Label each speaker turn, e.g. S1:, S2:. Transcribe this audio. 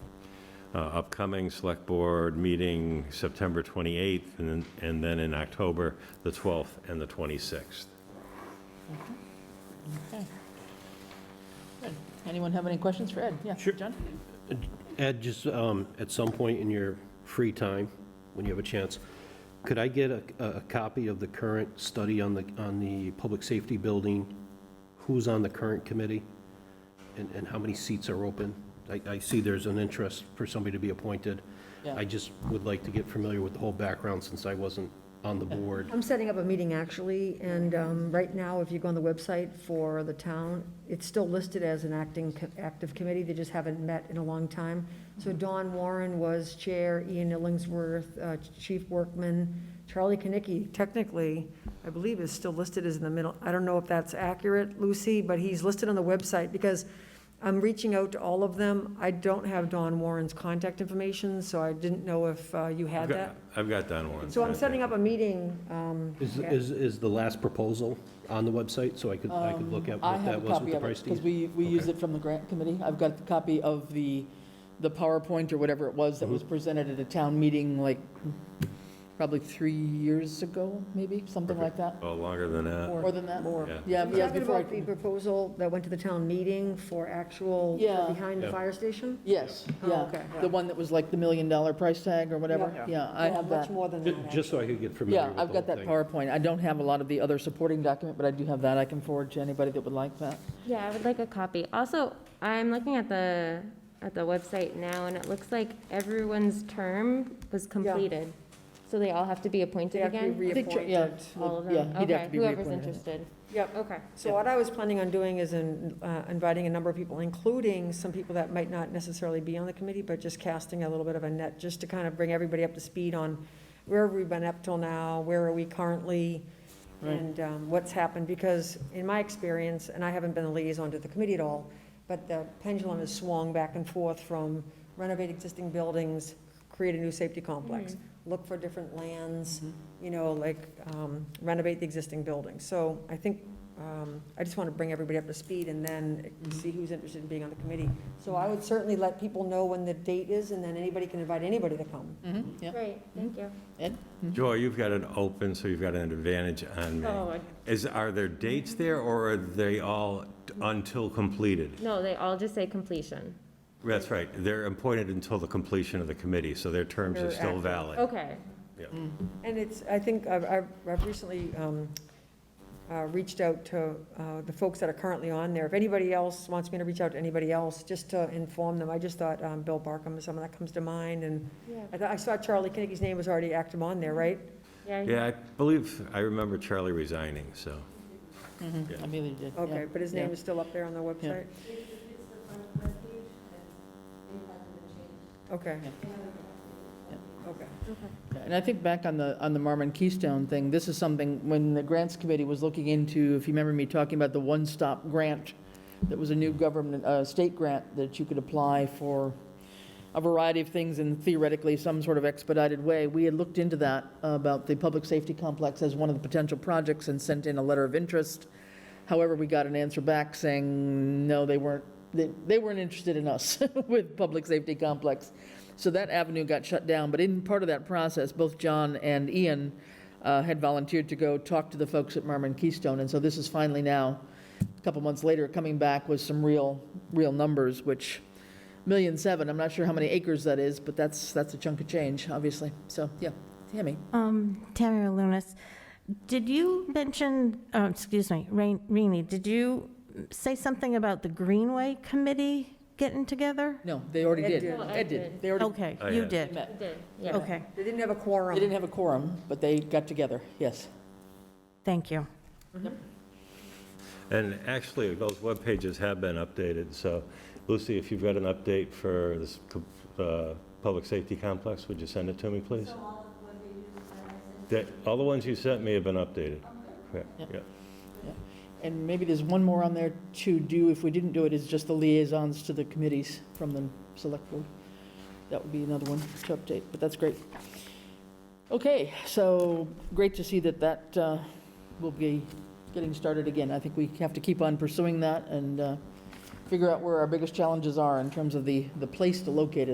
S1: uh, upcoming Select Board meeting September 28th, and then- and then in October, the 12th and the 26th.
S2: Okay. Good. Anyone have any questions for Ed? Yeah,
S3: Sure.
S2: John?
S3: Ed, just um, at some point in your free time, when you have a chance, could I get a, a copy of the current study on the, on the public safety building? Who's on the current committee? And, and how many seats are open? I, I see there's an interest for somebody to be appointed.
S2: Yeah.
S3: I just would like to get familiar with the whole background since I wasn't on the board.
S4: I'm setting up a meeting, actually, and um, right now, if you go on the website for the town, it's still listed as an acting, co- active committee, they just haven't met in a long time.
S1: Mm-hmm.
S4: So Don Warren was chair, Ian Illingsworth, uh, Chief Workman, Charlie Knickie, technically, I believe is still listed as in the middle. I don't know if that's accurate, Lucy, but he's listed on the website, because I'm reaching out to all of them. I don't have Don Warren's contact information, so I didn't know if uh, you had
S1: I've got-
S4: that.
S1: I've got that one.
S4: So I'm setting up a meeting, um,
S3: Is, is, is the last proposal on the website so I could, I could look at
S2: Um, I
S3: what that
S2: have a
S3: was with
S2: copy
S3: the
S2: of
S3: price
S2: it,
S3: tag?
S2: because we, we used
S3: Okay.
S2: it from the grant committee. I've got the copy of the, the PowerPoint or whatever it was that
S3: Mm-hmm.
S2: was presented at a town meeting like probably three years ago, maybe, something like that,
S1: Oh, longer than that.
S2: more than that.
S4: More.
S2: Yeah,
S4: Are you
S2: yeah,
S4: talking
S2: before,
S4: about the
S2: I-
S4: proposal that went to the town meeting for actual,
S2: Yeah.
S4: behind the
S3: Yeah.
S4: fire station?
S2: yes,
S4: Oh,
S2: yeah.
S4: okay.
S2: The one that was like the million dollar price tag or whatever.
S4: Yeah.
S2: Yeah, I
S4: Well,
S2: have that.
S4: Much more than
S3: Ju-
S4: that.
S3: Just so I could get familiar
S2: Yeah,
S3: with the
S2: I've got
S3: whole
S2: that
S3: thing.
S2: PowerPoint. I don't have a lot of the other supporting document, but I do have that. I can forward to anybody that would like that.
S5: Yeah, I would like a copy. Also, I'm looking at the, at the website now, and it looks like everyone's term was completed. So they all have to be appointed again?
S2: I think Ch- yeah,
S5: All of them?
S2: Yeah, he'd have to be
S5: Okay, whoever's
S2: reappointed.
S5: interested.
S4: Yep.
S5: Okay.
S4: So what I was planning on doing is in, uh, inviting a number of people, including some people that might not necessarily be on the committee, but just casting a little bit of a net, just to kind of bring everybody up to speed on where have we been up till now, where are we currently,
S2: Right.
S4: and um, what's happened, because in my experience, and I haven't been a liaison to the committee at all, but the pendulum has swung back and forth from renovate existing buildings, create a new safety complex, look for different lands, you know, like um, renovate the existing building. So I think, um, I just want to bring everybody up to speed and then see who's interested in being on the committee. So I would certainly let people know when the date is, and then anybody can invite anybody to come.
S2: Mhm, yeah.
S5: Great, thank you.
S1: Joy, you've got it open, so you've got an advantage on
S4: Oh.
S1: me.
S5: Oh,
S1: Is, are there dates there, or are they all until completed?
S5: No, they all just say completion.
S1: That's right, they're appointed until the completion of the committee, so their terms are
S4: They're
S1: still
S4: active.
S1: valid.
S5: Okay.
S4: And it's, I think, I've- I've I've recently um, uh, reached out to uh, the folks that are currently on there. If anybody else wants me to reach out to anybody else, just to inform them, I just thought um, Bill Barkham is someone that comes to mind, and
S5: Yeah.
S4: I thought- I saw Charlie Kinnicky's name was already active on there, right?
S1: Yeah, I believe, I remember Charlie resigning, so.
S2: Mhm, I mean, they did, yeah.
S4: Okay, but his
S2: yeah.
S4: name is still up there on the website? Okay. Okay.
S2: Yeah, And I think back on the, on the Marmon Keystone thing, this is something, when the grants committee was looking into, if you remember me talking about the one-stop grant, that was a new government, uh, state grant that you could apply for a variety of things and theoretically some sort of expedited way. We had looked into that, about the public safety complex as one of the potential projects and sent in a letter of interest. However, we got an answer back saying, no, they weren't, they, they weren't interested in us with public safety complex. So that avenue got shut down, but in part of that process, both John and Ian uh, had volunteered to go talk to the folks at Marmon Keystone, and so this is finally now, a couple months later, coming back with some real, real numbers, which, million seven, I'm not sure how many acres that is, but that's, that's a chunk of change, obviously, so, yeah, Tammy.
S6: Um, Tamara Lunas, did you mention, oh, excuse me, Rain- Rini, did you say something about the Greenway Committee getting together?
S2: No, they already
S4: Ed
S2: did.
S4: did.
S5: Well, Ed
S2: Ed did,
S5: did.
S2: they already
S6: Okay,
S1: I
S6: you
S1: had-
S6: did.
S2: met.
S5: Did, yeah.
S6: Okay,
S4: They didn't have a quorum.
S2: They didn't have a quorum, but they got together, yes.
S6: thank you.
S1: And actually, those web pages have been updated, so Lucy, if you've got an update for this co- uh, public safety complex, would you send it to me, please? That- All the ones you sent me have been updated. Correct,
S2: Yep.
S1: yeah.
S2: And maybe there's one more on there to do, if we didn't do it, is just the liaisons to the committees from the select board. That would be another one to update, but that's great. Okay, so great to see that that uh, will be getting started again. I think we have to keep on pursuing that and uh, figure out where our biggest challenges are in terms of the, the place to locate it.